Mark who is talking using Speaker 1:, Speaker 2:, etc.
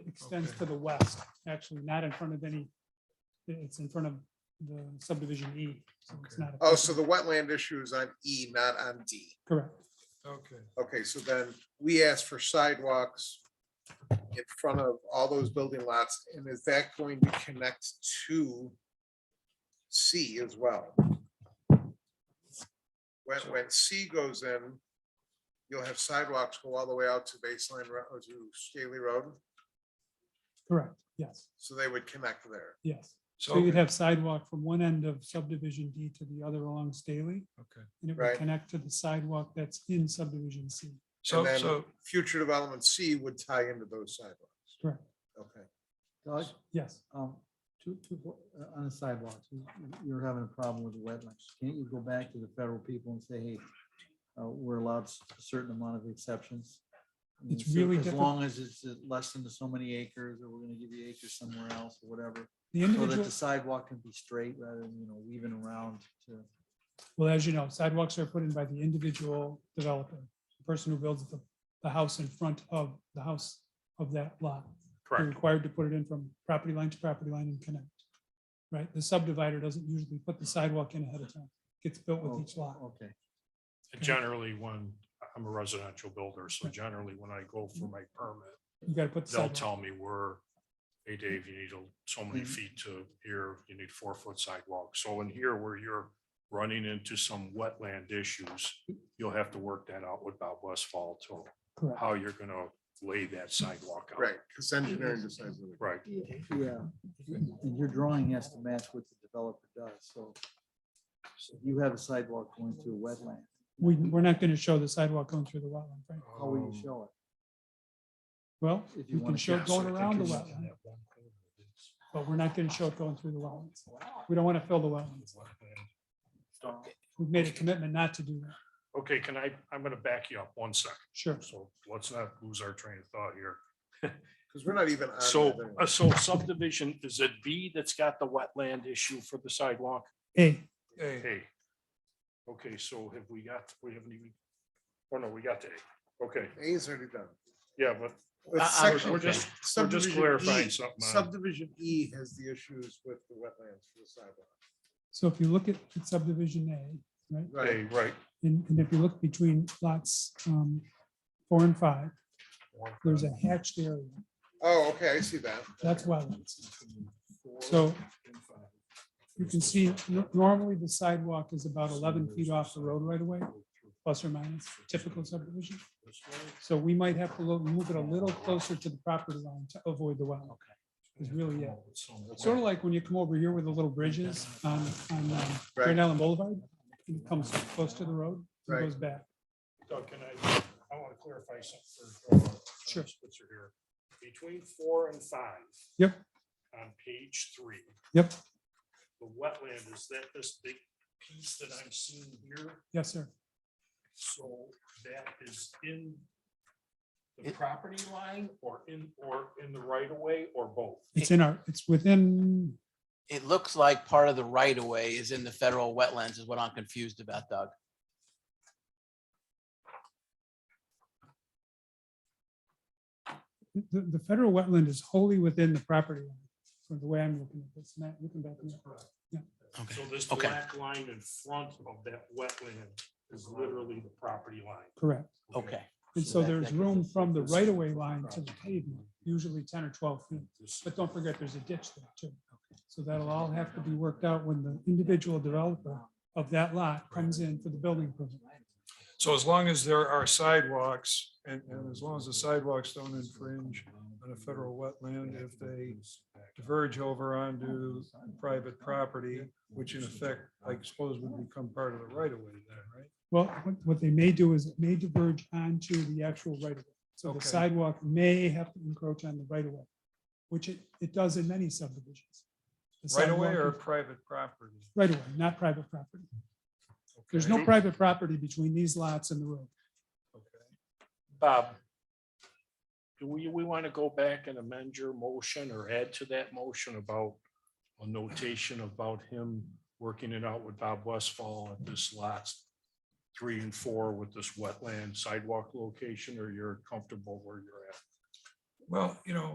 Speaker 1: extends to the west, actually, not in front of any, it's in front of the subdivision E, so it's
Speaker 2: Okay.
Speaker 1: not. a-
Speaker 3: Oh, so the wetland issue is on E, not on D.
Speaker 1: Correct,
Speaker 2: Okay,
Speaker 3: Okay, so then we asked for sidewalks in front of all those building lots, and is that going to connect to C as well? When, when C goes in, you'll have sidewalks go all the way out to baseline, Ro- or to Staley Road,
Speaker 1: correct, yes,
Speaker 3: so they would connect there.
Speaker 1: yes. So
Speaker 2: so,
Speaker 1: you'd have sidewalk from one end of subdivision D to the other along Staley,
Speaker 2: okay,
Speaker 1: and it
Speaker 3: Right.
Speaker 1: would connect to the sidewalk that's in subdivision C,
Speaker 2: so,
Speaker 3: then-
Speaker 2: so,
Speaker 3: Future development C would tie into those sidewalks.
Speaker 1: correct,
Speaker 3: Okay,
Speaker 4: Doug,
Speaker 1: yes.
Speaker 4: um, two, two, uh, on the sidewalks, you- you're having a problem with the wetlands. Can't you go back to the federal people and say, hey, uh, we're allowed s- a certain amount of exceptions? I mean,
Speaker 1: It's
Speaker 4: so-
Speaker 1: really
Speaker 4: As
Speaker 1: diffi-
Speaker 4: long as it's uh, less than so many acres, or we're gonna give you acres somewhere else, or whatever,
Speaker 1: The
Speaker 4: so that
Speaker 1: individual,
Speaker 4: the sidewalk can be straight rather than, you know, weaving around to.
Speaker 1: well, as you know, sidewalks are put in by the individual developer, the person who builds the, the house in front of the house of that lot. You're
Speaker 5: Correct.
Speaker 1: required to put it in from property line to property line and connect. Right? The subdivider doesn't usually put the sidewalk in ahead of time. Gets built with each lot.
Speaker 4: Okay.
Speaker 5: Generally, when, I'm a residential builder, so generally when I go
Speaker 1: Mm.
Speaker 5: for my permit,
Speaker 1: You gotta put the
Speaker 5: they'll
Speaker 1: sidewalk.
Speaker 5: tell me where, hey,
Speaker 1: Mm.
Speaker 5: Dave, you need a- so many
Speaker 4: Mhm.
Speaker 5: feet to here, you need four foot sidewalk. So in here where you're running into some wetland issues, you'll have to work that out with Bob Westfall to
Speaker 1: Correct.
Speaker 5: how you're gonna lay that sidewalk out.
Speaker 3: right, because engineering decides. what we-
Speaker 5: Right.
Speaker 4: Yeah, and your drawing has to match what the developer does, so. so if You have a sidewalk going through a wetland,
Speaker 1: We, we're not gonna show the sidewalk going through the wetland, right?
Speaker 4: how will you
Speaker 5: Um,
Speaker 4: show it?
Speaker 1: Well,
Speaker 4: If you
Speaker 1: you can
Speaker 4: wanna
Speaker 1: show it
Speaker 5: yeah, so I
Speaker 1: going
Speaker 5: think
Speaker 1: around the
Speaker 5: it's-
Speaker 1: wetland, but we're not gonna show it going through the wetlands. We don't wanna fill the wetlands. We've made a commitment not to do that.
Speaker 5: Okay, can I, I'm gonna back you up one second.
Speaker 1: Sure.
Speaker 5: So let's not lose our train of thought here.
Speaker 3: Because we're not even on.
Speaker 5: So,
Speaker 3: that anyway.
Speaker 5: uh, so subdivision, is it B that's got the wetland issue for the sidewalk?
Speaker 1: Hey,
Speaker 2: hey,
Speaker 5: Hey. Okay, so have we got, we haven't even, oh no, we got the A. Okay,
Speaker 3: A is already done.
Speaker 5: yeah, but
Speaker 3: With
Speaker 5: I- I was-
Speaker 3: section- E.
Speaker 5: we're just- we're just
Speaker 3: subdivision
Speaker 5: clarifying
Speaker 3: E-
Speaker 5: something on-
Speaker 3: Subdivision E has the issues with the wetlands for the sidewalk.
Speaker 1: so if you look at at subdivision A, right?
Speaker 5: A,
Speaker 3: Right,
Speaker 5: right.
Speaker 1: And, and if you look between lots, um, four and five, there's a hatched area.
Speaker 3: oh, okay, I see that.
Speaker 1: That's wetlands. So you can see no- normally the sidewalk is about eleven feet off the road right away, plus or minus, typical subdivision. So we might have to lo- move it a little closer to the property line to avoid the wetland. Is really it. Sort of like when you come over here where the little bridge is on, on um, Grand Island Boulevard, and it comes close to the road, and
Speaker 3: Right.
Speaker 1: goes back.
Speaker 5: Doug, can I, I want to clarify something. for, uh,
Speaker 1: Sure.
Speaker 5: Spitzer here. Between four and five.
Speaker 1: Yep.
Speaker 5: On page three.
Speaker 1: Yep.
Speaker 5: The wetland, is that this big piece that I'm seeing here?
Speaker 1: Yes, sir.
Speaker 5: So that is in the property line or in, or in the right of way or both?
Speaker 1: It's in our, it's within,
Speaker 6: It looks like part of the right of way is in the federal wetlands is what I'm confused about, Doug.
Speaker 1: the, the federal wetland is wholly within the property line, from the way I'm looking at this. Matt, you can back me up.
Speaker 5: So this
Speaker 6: Okay.
Speaker 5: black line in front of that wetland is literally the property line.
Speaker 1: Correct.
Speaker 6: Okay.
Speaker 1: And
Speaker 6: So
Speaker 1: so
Speaker 6: that-
Speaker 1: there's
Speaker 6: that gives
Speaker 1: room
Speaker 6: us-
Speaker 1: from the
Speaker 6: this-
Speaker 1: right-of-way line to the pavement, usually ten or twelve feet. But don't forget, there's a ditch there too. So that'll all have to be worked out when the individual developer of that lot comes in for the building permit.
Speaker 2: so as long as there are sidewalks and, and as long as the sidewalks don't infringe on a federal wetland, if they diverge over onto private property, which in effect, I suppose would become part of the right of way then, right?
Speaker 1: Well, what- what they may do is it may diverge onto the actual right-of-way. So the
Speaker 2: Okay.
Speaker 1: sidewalk may have to encroach on the right-of-way, which it, it does in many subdivisions. The
Speaker 2: Right away or
Speaker 1: sidewalk is-
Speaker 2: private property?
Speaker 1: Right-of-way, not private property. There's no
Speaker 5: Okay.
Speaker 1: private property between these lots and the road.
Speaker 5: Bob, do we, we want to go back and amend your motion or add to that motion about a notation about him working it out with Bob Westfall at this lots three and four with this wetland sidewalk location, or you're comfortable where you're at?
Speaker 2: Well, you know,